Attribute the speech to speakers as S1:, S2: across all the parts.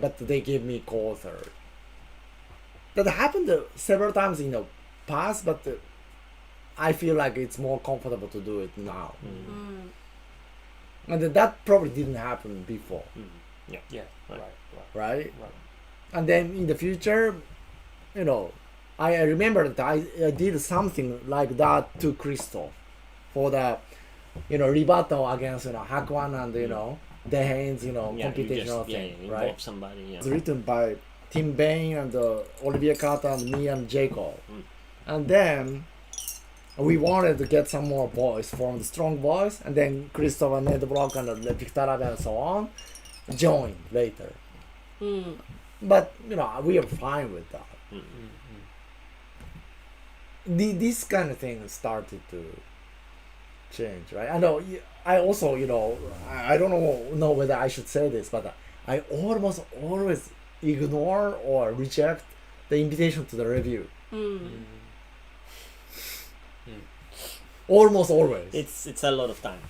S1: but they give me co-author. That happened uh, several times in the past, but uh, I feel like it's more comfortable to do it now. And that probably didn't happen before,
S2: Mm. Yeah.
S3: Right. Right.
S1: Mm. right?
S3: Right.
S1: And then in the future, you know, I I remember that I, I did something like that to Crystal for the, you know, rebuttal against, you know, Hakwan and, you know, Dehane's, you know,
S2: Yeah, you
S1: computational
S2: just, yeah,
S1: thing,
S2: involve
S1: right?
S2: somebody. Yeah.
S1: It's written by Tim Bain and uh, Olivia Carter and me and Jacob. And then we wanted to get some more boys from the strong boys, and then Christopher Ned Block and uh, Victor Abbe and so on joined later. But you know, we are fine with that. Mm. The, this kind of thing started to change, right? I know. y- I also, you know, I, I don't know know whether I should say this, but I almost always ignore or reject the invitation to the review. Almost always.
S2: It's it's a lot of time.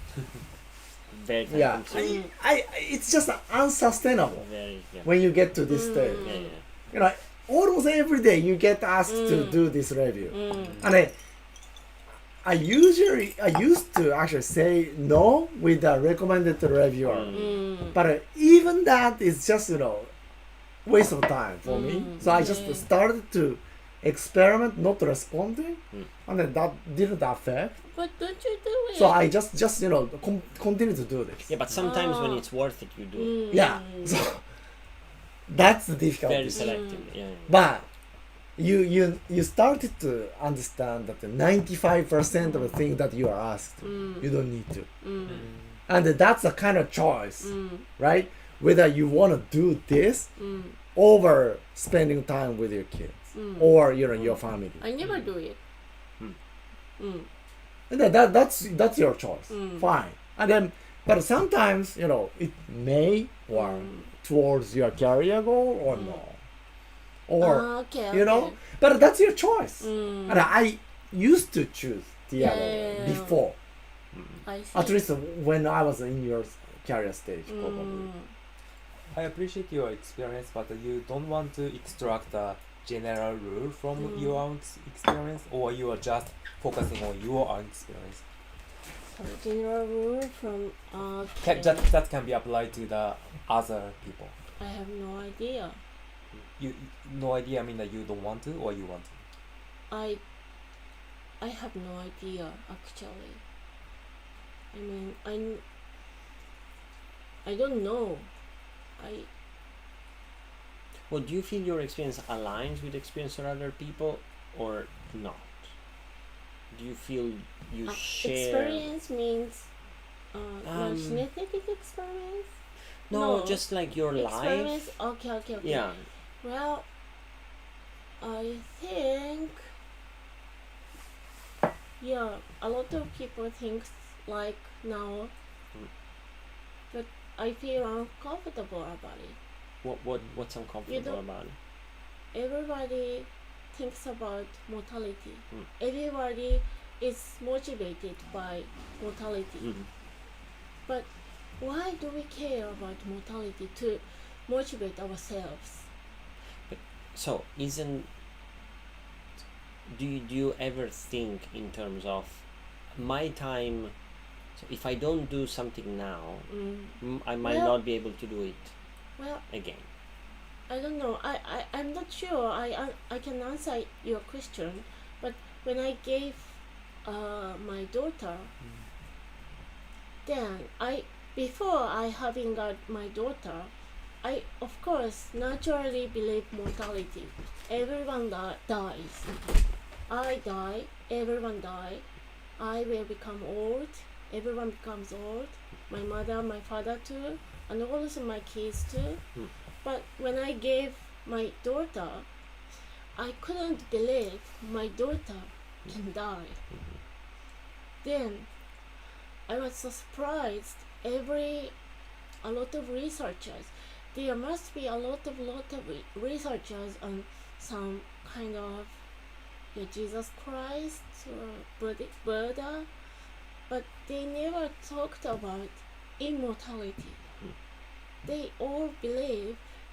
S2: very time
S1: yeah, I,
S2: consuming.
S1: I, it's just unsustainable
S2: Very yeah.
S1: when you get to this stage.
S2: yeah. Yeah.
S1: you know, almost every day you get asked to do this review, and I, I usually I used to actually say no with the recommended reviewer, but uh, even that is just you know, waste of time for me. So I just started to experiment not responding, and then that didn't affect.
S4: But don't you do it?
S1: So I just just you know com- continue to do this.
S2: Yeah, but sometimes when
S4: Ah. Mm.
S2: it's worth it, you do it.
S1: Yeah, so that's the difficulty.
S2: very selectively. Yeah, yeah.
S1: But you you you started to understand that the 95% of the thing that you are asked,
S4: Mm-hmm. Mm,
S1: you don't need to. Mm. And that's a kind of
S4: mm,
S1: choice, right? Whether you want to do this over spending time with your kids
S4: Mm.
S1: or you know your family.
S4: I never do it.
S1: And that, that- that's that's your choice. Fine. And then but sometimes, you know, it may work
S4: Mm.
S1: towards your career goal or no. Or
S4: Ah, okay,
S1: you know
S4: okay. Mm.
S1: but that's your choice
S4: Mm-hmm.
S1: and i used to choose the
S4: Yeah,
S1: other
S4: yeah, yeah.
S1: way before
S4: I see.
S1: at least when i was in your career stage probably
S4: Mm.
S3: I appreciate your experience, but you don't want to extract a general rule from your own ex- experience, or you are just focusing on your own experience.
S4: Some general rule from uh,
S3: Can, that, that can be applied to the other people.
S4: I have no idea.
S3: You no idea. I mean that you don't want to, or you want to.
S4: I I have no idea actually. I mean, I I don't know. I
S2: Well, do you feel your experience aligns with experience of other people or not? Do you feel you
S4: uh,
S2: share?
S4: experience means uh, no,
S2: Um,
S4: genetic experience.
S2: No,
S4: No.
S2: just like your
S4: Experience.
S2: life.
S4: Okay, okay, okay.
S2: Yeah.
S4: Well, I think, yeah, a lot of people think like now,
S2: Mm.
S4: but I feel uncomfortable about it.
S2: What what what's uncomfortable
S4: don't-
S2: about it?
S4: Everybody thinks about mortality.
S2: Mm.
S4: Everybody is motivated by mortality.
S2: Mhm.
S4: But why do we care about mortality to motivate ourselves?
S2: So isn't do you do you ever think in terms of my time? So if I don't do something now,
S4: Mm.
S2: m- I might
S4: Well-
S2: not be able to do it
S4: Well,
S2: again.
S4: I don't know. I, I, I'm not sure I, I, I can answer your question, but when I gave uh, my daughter, then I before I having got my daughter, I of course naturally believe mortality. Everyone di- dies. I die. Everyone die. I will become old. Everyone becomes old. My mother, my father too, and also my kids too. But when I gave my daughter, I couldn't believe my daughter can die. Then I was so surprised. Every a lot of researchers, there must be a lot of lot of re- researchers on some kind of yeah, Jesus Christ or Buddha, Buddha, but they never talked about immortality. They all believe